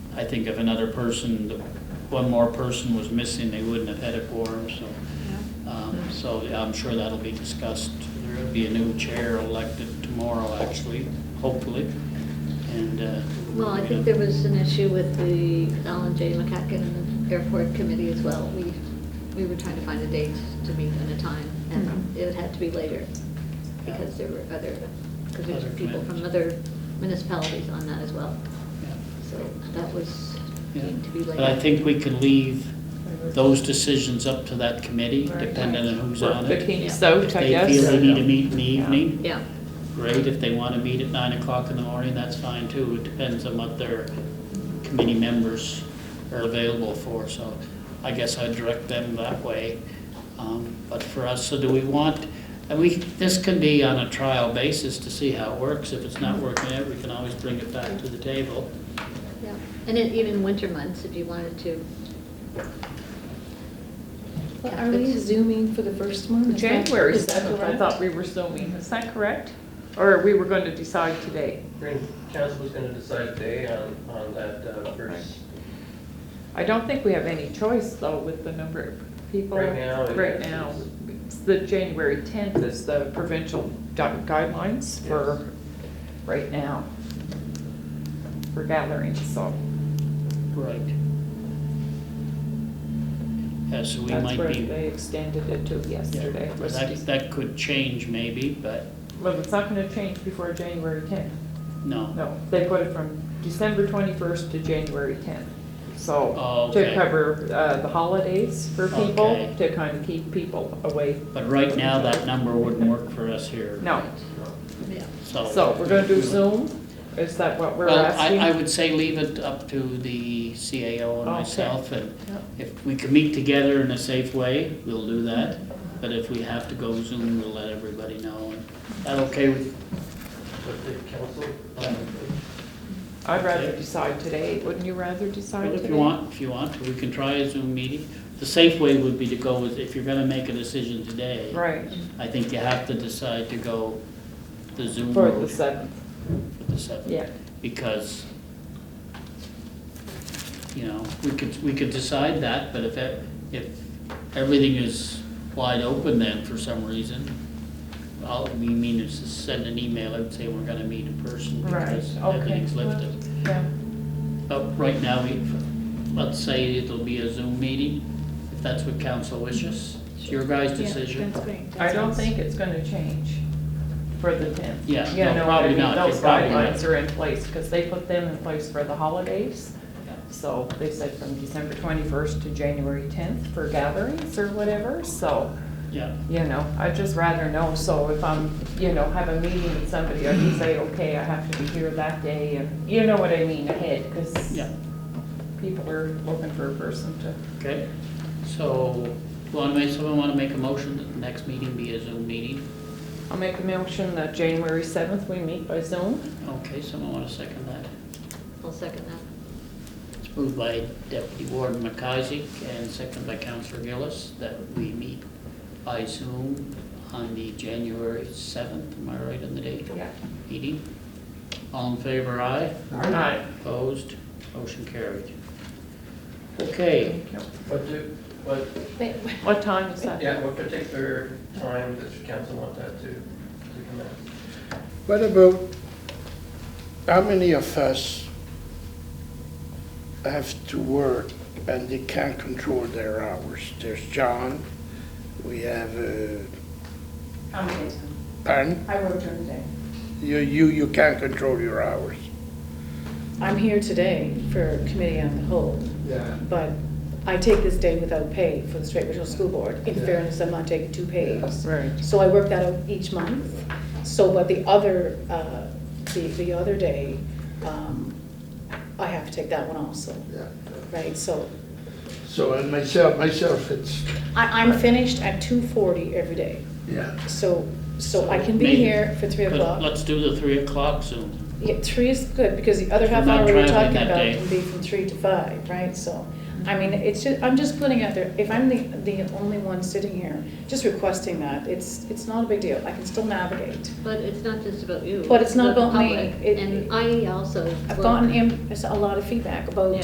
I think if another person, one more person was missing, they wouldn't have had a quorum, so. Um, So yeah, I'm sure that'll be discussed. There'll be a new chair elected tomorrow, actually, hopefully, and. uh, Well, I you know, think there was an issue with the Alan J. McCacken and the airport committee as well. We, we were trying to find a date to meet and a time, and it had to be later because there were other, because there's Other people from commitments. other municipalities on that as well. yeah, So that was, yeah. deemed to be later. But I think we can leave those decisions up to that committee, Right. depending on who's Work on the it. kinks out, If I they feel they guess. need to meet in the Yeah. evening, Yeah, great, if they want to meet at nine o'clock in the morning, that's fine too. It depends on what their committee members are available for, so I guess I'd direct them that way. Um, But for us, so do we want, and we, this can be on a trial basis to see how it works. If it's not working out, we can always bring it back to the table. yeah. And then even winter months, if you wanted to. Well, Are we zooming for the first one? Is that- January is that 7th, I correct? thought we were zooming, is that correct? Or we were going to decide today? Green council is gonna decide today on, on that uh, first, I don't think we have any choice, though, with the number of people. Right now, it Right is. now, it's the January 10th is the provincial gui- guidelines for, right now, for gatherings, so. Right. Yeah, so we That's might where be, they extended it to yesterday. yeah, that, that could change maybe, but Well, it's not gonna change before January tenth. no. No, they put it from December twenty-first to January tenth. Oh, So, okay. to cover, uh, the holidays for people, Okay. to kind of keep people away. But right now, that number wouldn't work for us here. No, Yeah. So. so we're gonna do Zoom? Is that what we're Oh. Well, I, asking? I would say leave it up to the CAO and Okay. myself, and Yep. if we can meet together in a safe way, we'll do that. But if we have to go Zoom, we'll let everybody know. And That okay with, with the council. um, I'd rather decide today. Wouldn't you rather decide well, today? if you want, if you want, we can try a Zoom meeting. The safe way would be to go with, if you're gonna make a decision today. Right, I think you have to decide to go the Zoom for the route seventh, for the seventh. yeah. because, you know, we could, we could decide that, but if, it- if everything is wide open then for some reason, all we mean is to send an email and say we're gonna meet in person because Right, okay. everything's lifted. Yeah. But right now, we, let's say it'll be a Zoom meeting, if that's what council wishes, it's your guys' decision. I don't think it's gonna change for the tenth. Yeah, You no, know, I probably mean, not. those It's probably not. guidelines are in place, because they put them in place for the holidays. Yeah. So they said from December twenty-first to January tenth for gatherings or whatever, so, Yeah, you know, I'd just rather know, so if I'm, you know, have a meeting with somebody, I can say, okay, I have to be here that day, and you know what I mean, ahead, because yeah, people are looking for a person to. okay. So, wanna make, someone wanna make a motion that the next meeting be a Zoom meeting? I'll make a motion that January seventh, we meet by Zoom. Okay, someone wanna second that? I'll second that. It's moved by Deputy Warden McCisaac and seconded by Counselor Gillis that we meet by Zoom on the January 7th, am I right on the date? Yeah. Meeting. All in favor, aye. Aye. Opposed, motion carried. Okay, What do, what, What time is that? yeah, what particular time does the council want that to, to commence? What about, how many of us have to work and they can't control their hours? There's John, we have, uh, How many days? Pan, I work during the day. you, you, you can't control your hours. I'm here today for committee on the whole, Yeah. but I take this day without pay for the Straight Regional School Board. In Yeah. fairness, I'm not taking two pays. Right. So I work that out each month. So, but the other, uh, the, the other day, um, I have to take that one also, right? So So, and myself, myself, it's, I, I'm finished at two forty every day. yeah. So, so I can be Maybe. here for three but o'clock. let's do the 3 o'clock Zoom. Yeah, three is good, because the other If you're half not hour we were traveling that talking about day. can be from three to five, right? So, I mean, it's just, I'm just putting out there, if I'm the, the only one sitting here, just requesting that, it's, it's not a big deal. I can still navigate. But it's not just about you. But it's not the about me. public. It- And I also. I've will- gotten in- a lot of feedback about